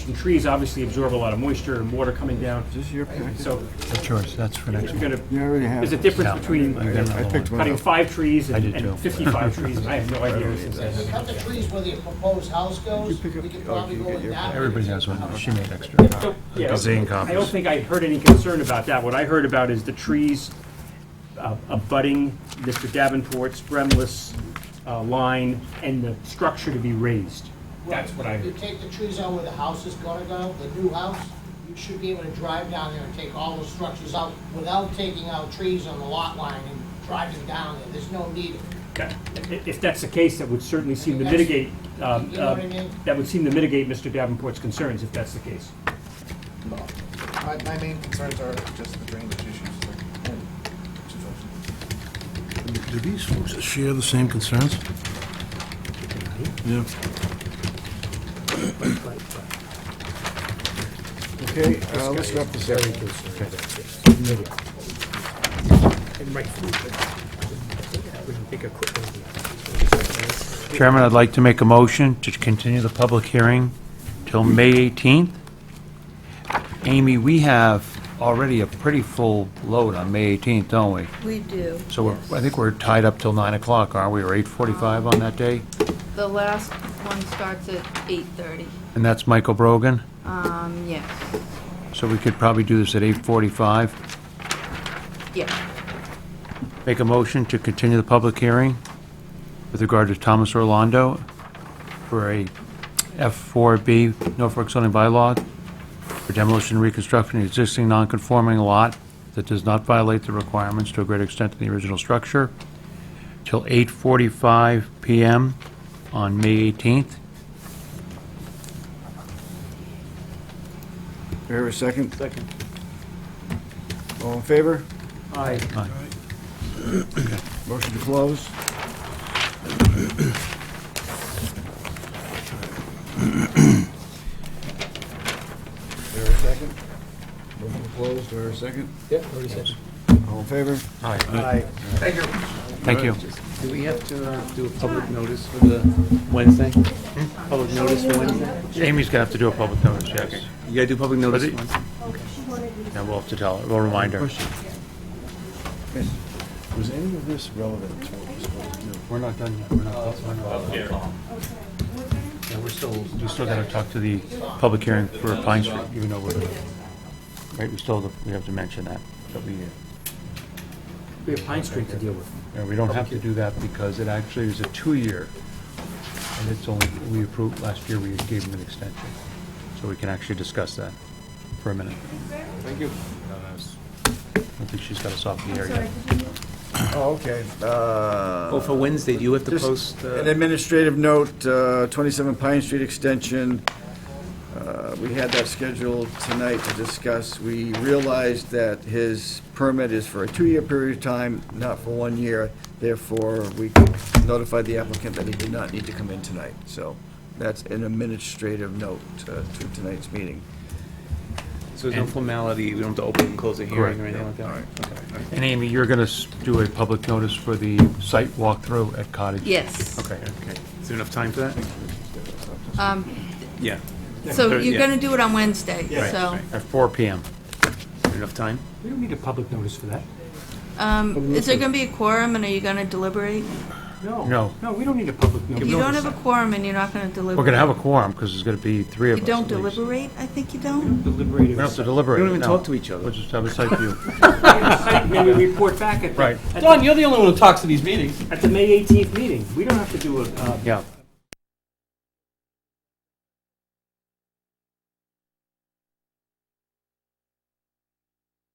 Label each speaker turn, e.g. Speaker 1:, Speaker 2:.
Speaker 1: And trees obviously absorb a lot of moisture and water coming down,
Speaker 2: Is this your package?
Speaker 1: so
Speaker 3: George, that's for
Speaker 1: you're
Speaker 3: next one.
Speaker 1: gonna,
Speaker 2: You already have.
Speaker 1: there's a
Speaker 2: it.
Speaker 1: difference
Speaker 3: I
Speaker 1: between
Speaker 3: got another
Speaker 2: I picked one
Speaker 3: one.
Speaker 1: cutting
Speaker 2: up.
Speaker 1: five trees
Speaker 3: I
Speaker 1: and
Speaker 3: did too.
Speaker 1: and fifty-five trees, and I have no idea.
Speaker 4: If you cut the trees where the proposed house
Speaker 2: You
Speaker 4: goes, we
Speaker 2: pick up-
Speaker 4: could
Speaker 2: oh,
Speaker 4: probably
Speaker 2: you
Speaker 4: go
Speaker 2: get
Speaker 4: with
Speaker 2: your-
Speaker 4: that.
Speaker 3: Everybody has one, she made extra.
Speaker 1: So, yeah,
Speaker 5: Gazillion
Speaker 1: I don't
Speaker 5: copies.
Speaker 1: think I heard any concern about that. What I heard about is the trees uh, abutting Mr. Davenport's Bremlis uh, line and the structure to be raised. That's what I
Speaker 4: You
Speaker 1: heard.
Speaker 4: take the trees out where the house is gonna go, the new house, you should be able to drive down there and take all those structures out without taking out trees on the lot line and driving down there. There's no need.
Speaker 1: Okay. If- If that's the case, that would certainly seem to
Speaker 4: That's-
Speaker 1: mitigate, um,
Speaker 4: You know
Speaker 1: uh,
Speaker 4: what I mean?
Speaker 1: that would seem to mitigate Mr. Davenport's concerns, if that's the case.
Speaker 6: My, my main concerns are just the drainage issues. like, and situation.
Speaker 5: Do these folks share the same concerns? Yeah.
Speaker 2: Okay, uh, let's wrap this up.
Speaker 3: Chairman, I'd like to make a motion to continue the public hearing till May 18th. Amy, we have already a pretty full load on May 18th, don't we?
Speaker 7: We do.
Speaker 3: So we're- I think we're tied up till 9 o'clock, aren't we, or 8:45 on that day?
Speaker 7: The last one starts at 8:30.
Speaker 3: And that's Michael Brogan,
Speaker 7: Um,
Speaker 8: Mm-hmm.
Speaker 7: yes,
Speaker 3: so we could probably do this at 8:45.
Speaker 7: yeah.
Speaker 3: Make a motion to continue the public hearing with regard to Thomas Orlando for a F4B Norfolk zoning bylaw for demolition and reconstruction of existing non-conforming lot that does not violate the requirements to a great extent of the original structure till 8:45 PM on May 18th.
Speaker 2: Here, a second? Second. All in favor?
Speaker 1: I,
Speaker 2: Motion to close? There a second? Motion to close, there a second?
Speaker 8: Yep, already said.
Speaker 2: All in favor?
Speaker 3: Thank you.
Speaker 8: Do we have to uh, do a public notice for the Wednesday?
Speaker 7: Hmm?
Speaker 8: Public notice for Wednesday?
Speaker 3: Amy's gonna have to do a public notice, yes.
Speaker 8: You gotta do public notice
Speaker 3: But it-
Speaker 8: Wednesday.
Speaker 3: And we'll have to tell her, we'll remind her.
Speaker 2: Yes. Was any of this relevant to what was supposed to do?
Speaker 3: We're not done yet, we're not. Yeah, we're still, we still gotta talk to the public hearing for Pine Street, even though we're, right, we still, have- we have to mention that, that we,
Speaker 1: we have Pine Street to deal with.
Speaker 3: and we don't have to do that because it actually is a two-year, and it's only, we approved, last year we gave them an extension, so we can actually discuss that for a minute.
Speaker 2: Thank you.
Speaker 3: I think she's got us off the air yet.
Speaker 2: Oh, okay. Uh,
Speaker 8: Oh, for Wednesday, do you have to
Speaker 2: Just
Speaker 8: post? uh,
Speaker 2: An administrative note, uh, 27 Pine Street Extension, uh, we had that scheduled tonight to discuss. We realized that his permit is for a two-year period of time, not for one year. Therefore, we notified the applicant that he did not need to come in tonight. So that's an administrative note uh, to tonight's meeting.
Speaker 8: So there's no formality, we don't have to open and close a
Speaker 3: Correct,
Speaker 8: hearing or anything like that?
Speaker 3: And Amy, you're gonna s- do a public notice for the site walkthrough at Cottage?
Speaker 7: Yes.
Speaker 3: Okay,
Speaker 8: Okay. Is there enough time for that?
Speaker 7: Um,
Speaker 8: Yeah.
Speaker 7: So
Speaker 8: Thirty,
Speaker 7: you're
Speaker 8: yeah.
Speaker 7: going to do it on Wednesday,
Speaker 8: Right,
Speaker 7: so.
Speaker 8: right.
Speaker 3: at four PM.
Speaker 8: Enough time?
Speaker 1: We don't need a public notice for that.
Speaker 7: um, Is there going to be a quorum, and are you going to deliberate?
Speaker 1: No.
Speaker 3: No.
Speaker 1: No, we don't need a public
Speaker 7: If
Speaker 1: notice.
Speaker 7: you don't have a quorum and you're not going to deliberate.
Speaker 3: We're gonna have a quorum, because there's gonna be three of
Speaker 7: You
Speaker 3: us
Speaker 7: don't
Speaker 3: at least.
Speaker 7: deliberate? I think you don't.
Speaker 1: Deliberative.
Speaker 3: We don't have to deliberate.
Speaker 8: We don't even
Speaker 3: no.
Speaker 8: talk to each other.
Speaker 3: We'll just have a site view.
Speaker 1: Maybe report back at the,
Speaker 3: Right.
Speaker 1: at the-
Speaker 8: you're the only one who talks to these meetings.
Speaker 1: at the May eighteenth meeting. We don't have to do a, uh,
Speaker 3: Yeah.